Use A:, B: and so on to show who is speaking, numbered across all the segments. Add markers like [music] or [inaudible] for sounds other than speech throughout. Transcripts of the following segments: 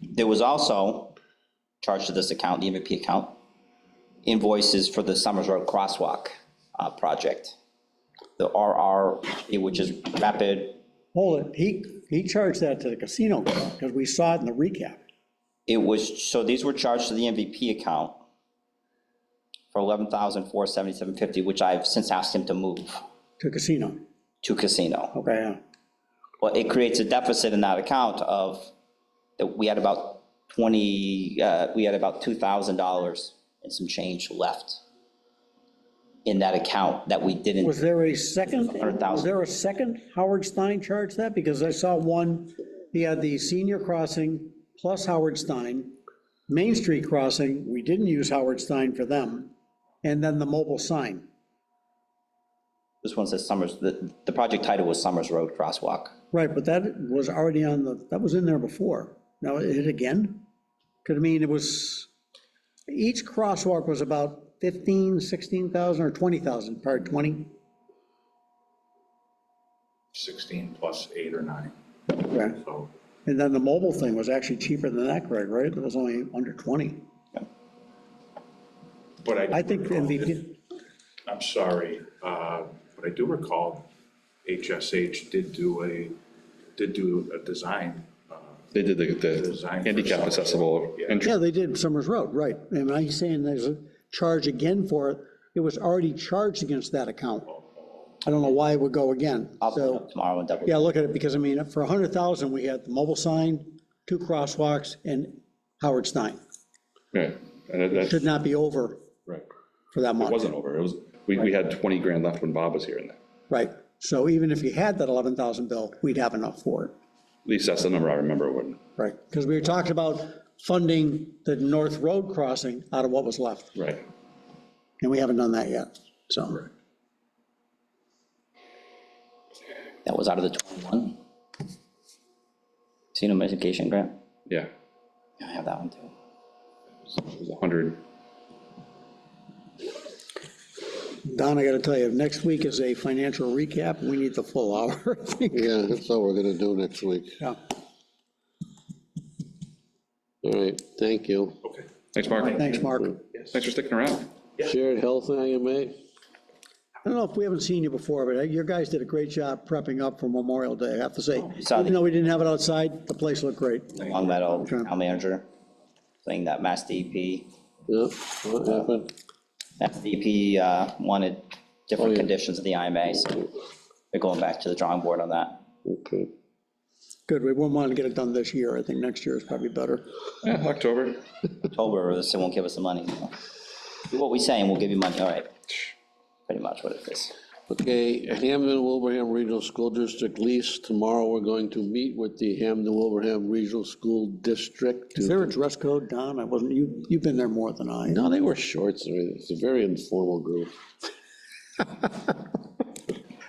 A: There was also charged to this account, the MVP account, invoices for the Summers Road Crosswalk uh, project. The RR, which is rapid,
B: Hold it, he, he charged that to the casino, because we saw it in the recap.
A: it was, so these were charged to the MVP account for eleven thousand four seventy-seven fifty, which I've since asked him to move
B: To casino,
A: to casino.
B: okay, yeah.
A: Well, it creates a deficit in that account of, that we had about twenty, uh, we had about two thousand dollars and some change left in that account that we didn't.
B: Was there a second, was
A: 100,000.
B: there a second Howard Stein charged that? Because I saw one, he had the senior crossing plus Howard Stein, Main Street crossing, we didn't use Howard Stein for them, and then the mobile sign.
A: This one says Summers, the, the project title was Summers Road Crosswalk.
B: Right, but that was already on the, that was in there before. Now, it hit again? Could I mean, it was, each crosswalk was about 15, 16,000 or 20,000, part 20?
C: 16 plus eight or nine,
B: Right.
C: so.
B: And then the mobile thing was actually cheaper than that, Greg, right? It was only under 20.
C: But I. do
B: I think
A: Oh,
C: recall-
B: MVP,
C: I'm sorry, uh, but I do recall HSH did do a, did do a design.
D: They did the,
C: Design
D: the
C: for
D: handicap
C: some-
D: accessible
C: Yeah.
D: entry.
B: yeah, they did Summers Road, right. And I'm saying there's a charge again for it. It was already charged against that account. I don't know why it would go again.
A: I'll
B: So-
A: look up tomorrow and double.
B: Yeah, look at it, because I mean, for a hundred thousand, we had the mobile sign, two crosswalks, and Howard Stein.
D: Yeah, and that,
B: Should not be over
D: right.
B: for that
D: It
B: much,
D: wasn't over. It was, we, we had 20 grand left when Bob was here and that.
B: right? So even if you had that eleven thousand bill, we'd have enough for it,
D: At least that's the number I remember when,
B: right? Because we were talking about funding the North Road crossing out of what was left,
D: right.
B: and we haven't done that yet, so.
A: That was out of the 21. Casino mitigation grant.
D: Yeah,
A: Yeah, I have that one too.
D: it was 100.
B: Don, I gotta tell you, next week is a financial recap, we need the full hour, [laughs] I think.
E: Yeah, that's all we're gonna do next week.
B: Yeah.
E: All right, thank you.
C: Okay.
D: Thanks, Mark.
B: Thanks, Mark.
D: Thanks for sticking around.
E: Shared health IMA,
B: I don't know if we haven't seen you before, but uh, your guys did a great job prepping up for Memorial Day, I have to say.
E: Oh,
A: saw the-
B: Even though we didn't have it outside, the place looked great.
A: Long Meadow,
B: Okay.
A: town manager, playing that Mass DEP.
E: yeah, what happened?
A: Mass DEP uh, wanted
E: Oh,
A: different
E: yeah.
A: conditions of the IMA, so they're going back to the drawing board on that.
E: Okay,
B: Good, we wouldn't want to get it done this year, I think next year is probably better.
D: Yeah, October.
A: October, they won't give us the money. you know. Do what we say and we'll give you money, all right. Pretty much what it is.
E: okay, Hamden Wilbraham Regional School District lease, tomorrow we're going to meet with the Hamden Wilbraham Regional School District. to-
B: Is there a dress code, Don? I wasn't, you, you've been there more than I.
E: No, they wear shorts, I mean, it's a very informal group.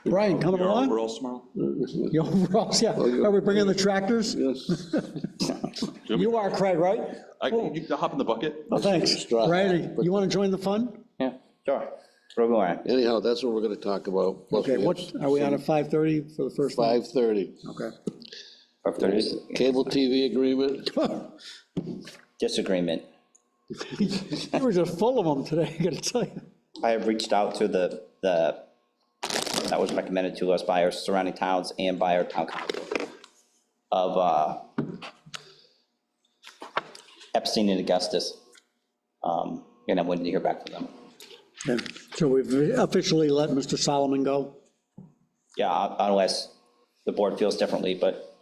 B: Brian, coming along? [laughs]
C: overall smile?
B: Your overalls, yeah. Are we bringing the tractors?
E: Yes,
B: You are Craig, right?
F: I, you hop in the bucket?
B: Oh, thanks.
E: straw hat,
B: Brian, you want to join the fun?
A: Yeah, sure. We're going.
E: anyhow, that's what we're gonna talk about. Plus,
B: Okay,
E: we have
B: what, are we on at 5:30 for the first one?
E: 5:30,
B: Okay.
A: If there's
E: cable TV agreement,
A: disagreement,
B: [laughs] You were just full of them today, I gotta tell you.
A: I have reached out to the, the, that was recommended to us by our surrounding towns and by our town council of uh, Epstein and Augustus. Um, And I'm waiting to hear back from them.
B: Okay, So we've officially let Mr. Solomon go?
A: Yeah, uh, unless the board feels differently, but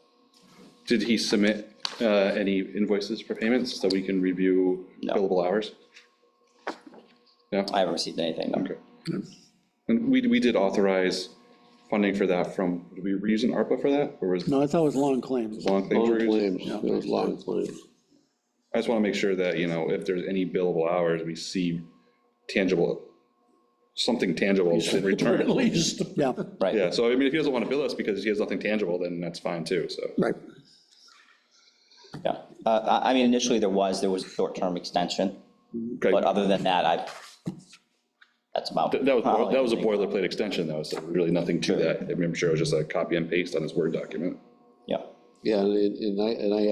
D: Did he submit uh, any invoices for payments so we can review
A: No.
D: billable hours? Yeah,
A: I haven't received anything. no.
D: okay. And we, we did authorize funding for that from, did we were using ARPA for that? Or was it
B: No, I thought it was long claims.
D: long thing?
E: long
D: we were using?
E: claims, those long claims.
D: I just want to make sure that, you know, if there's any billable hours, we see tangible, something tangible in return.
E: least.
B: Yeah,
A: Right.
D: Yeah, so I mean, if he doesn't want to bill us because he has nothing tangible, then that's fine too, so.
B: right.
A: Yeah. Uh, I I mean, initially there was, there was a short-term extension,
D: Okay.
A: but uh, other than that, I, that's about.
D: That that was, boil- that was a boilerplate extension though, so really nothing to that. I'm sure it was just a copy and paste on his Word document.
A: Yeah.
E: Yeah, and, and I, and I